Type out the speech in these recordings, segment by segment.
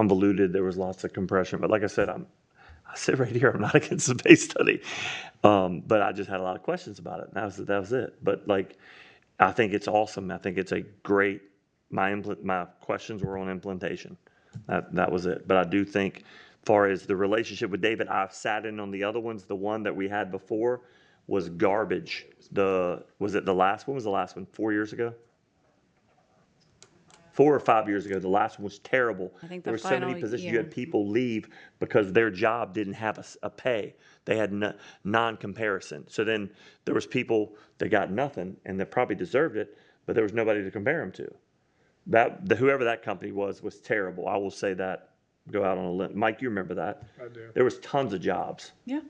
convoluted. There was lots of compression. But like I said, I'm I sit right here. I'm not against the base study, um, but I just had a lot of questions about it. And that was that was it. But like, I think it's awesome. I think it's a great. My impl- my questions were on implementation. That that was it. But I do think, far as the relationship with David, I've sat in on the other ones. The one that we had before was garbage. The was it the last one? Was the last one four years ago? four or five years ago. The last one was terrible. I think There the were so many final positions. You had year, people leave because their job didn't have a, s- a pay. They had no, non-comparison. So then there was people that got nothing and that probably deserved it, but there was nobody to compare them to. That the, whoever that company was was terrible. I will say that. Go out on a limb. Mike, you remember that? I do. There was tons of jobs, yeah.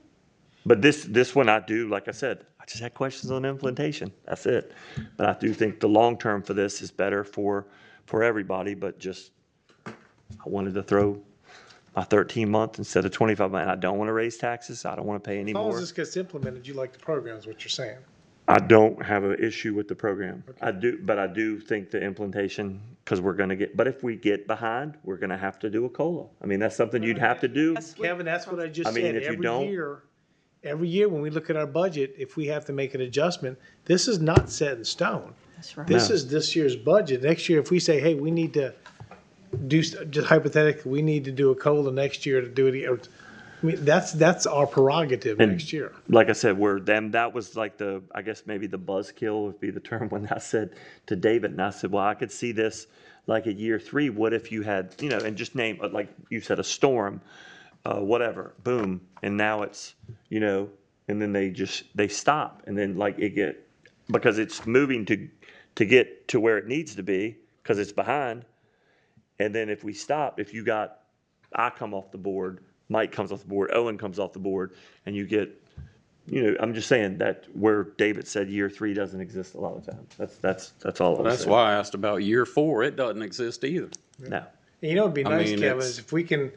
but this this one I do. Like I said, I just had questions on implementation. That's it. But I do think the long term for this is better for for everybody. But just I wanted to throw my 13 month instead of 25 month. I don't want to raise taxes. I don't want to pay any As long as more. this gets implemented, you like the program is what you're saying. I don't have an issue with the program. I do, but I do think the implementation, because we're going to get, but if we get behind, we're going to have to do a COLA. I mean, that's something you'd have to do. Kevin, that's what I I just mean, said. if you Every don't- year, every year when we look at our budget, if we have to make an adjustment, this is not set in stone. That's right. This is this year's budget. Next year, if we say, hey, we need to do, st- just hypothetically, we need to do a COLA next year to do it, or, I mean, that's, that's our prerogative next year. Like I said, we're them. That was like the, I guess maybe the buzzkill would be the term when I said to David, and I said, well, I could see this like a year three. What if you had, you know, and just name, uh, like you said, a storm, uh, whatever, boom, and now it's, you know, and then they just they stop, and then like it get because it's moving to to get to where it needs to be because it's behind, and then if we stop, if you got I come off the board, Mike comes off the board, Owen comes off the board, and you get you know, I'm just saying that where David said year three doesn't exist a lot of times. That's that's that's all I'm That's saying. why I asked about year four. It doesn't exist either. No. And You know, it'd be I nice, mean, Kevin, it's- is if we can,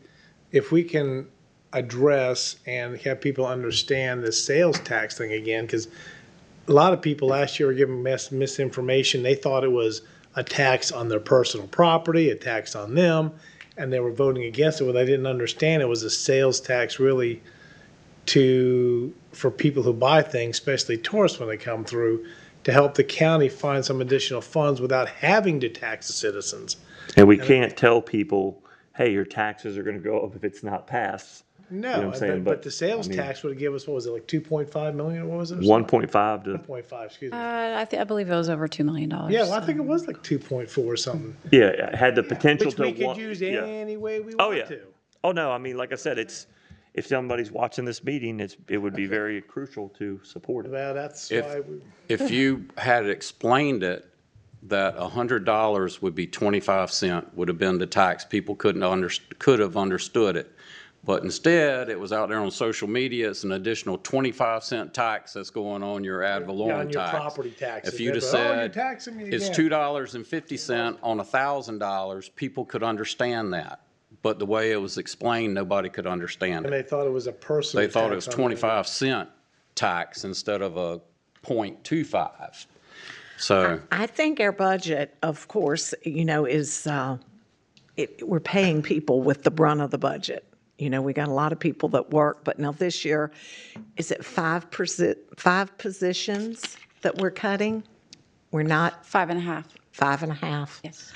if we can address and have people understand the sales tax thing again, because a lot of people last year were given mis- misinformation. They thought it was a tax on their personal property, a tax on them, and they were voting against it. What they didn't understand it was a sales tax really to for people who buy things, especially tourists when they come through, to help the county find some additional funds without having to tax the citizens. And we can't tell people, hey, your taxes are going to go up if it's not passed. No, what I'm but, saying? but But, the sales I mean- tax would give us what was it like two point five million? What was it? 1.5 to point five. Excuse me. Uh, I, th- I believe it was over $2 million. yeah, well, I think it was like two point four or something, yeah, it had the potential which we to could one, use yeah. any way we Oh want yeah. to. Oh no, I mean, like I said, it's if somebody's watching this meeting, it's it would be very crucial to support it. Well, that's If- why we. If you had explained it, that a hundred dollars would be twenty-five cent would have been the tax, people couldn't under, could have understood it. But instead, it was out there on social media, it's an additional twenty-five cent tax that's going on your ad Yeah, valorem on your tax. property taxes. If you'd have They'd be, "Oh, you're said, taxing me it's again." two dollars and fifty cent on a thousand dollars, people could understand that. But the way it was explained, nobody could understand And it. they thought it was a personal. They thought it was tax on their- twenty-five cent tax instead of a point two-five. So, I think our budget, of course, you know, is, uh, it, we're paying people with the brunt of the budget. You know, we got a lot of people that work, but now this year, is it five percent, five positions that we're cutting? We're not Five and a half, five and a half? yes.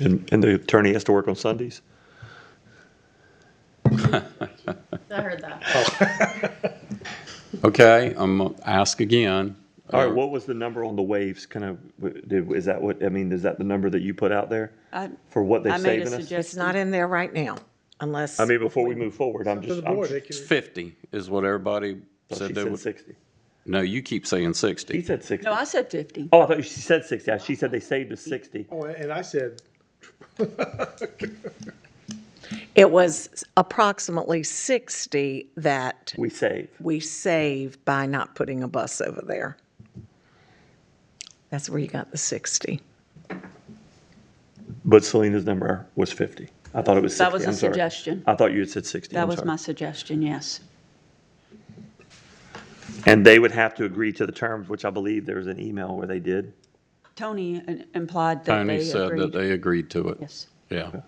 And, and the attorney has to work on Sundays. I heard that. okay, I'm gonna ask again. All right, what was the number on the waves? Kind of did is that what I mean? Is that the number that you put out there I- for what they're I made a saving us? It's suggestion. not in there right now, unless. I mean, before we move forward, I'm To just, the I'm board, they just- can. Fifty is what everybody she said they said would. sixty. No, you keep saying He sixty. said sixty. No, I said 50. Oh, I thought she said sixty. Yeah, She said they saved us sixty. Oh, and I said, It was approximately 60 that We save. we saved by not putting a bus over there. That's where you got the 60. But Selena's number was fifty. I thought it was sixty. That was a I'm sorry. suggestion. I thought you had said sixty. That I'm was sorry. my suggestion, yes. And they would have to agree to the terms, which I believe there was an email where they did. Tony uh, implied that Tony they said that agreed. they agreed to it. Yes. Yeah.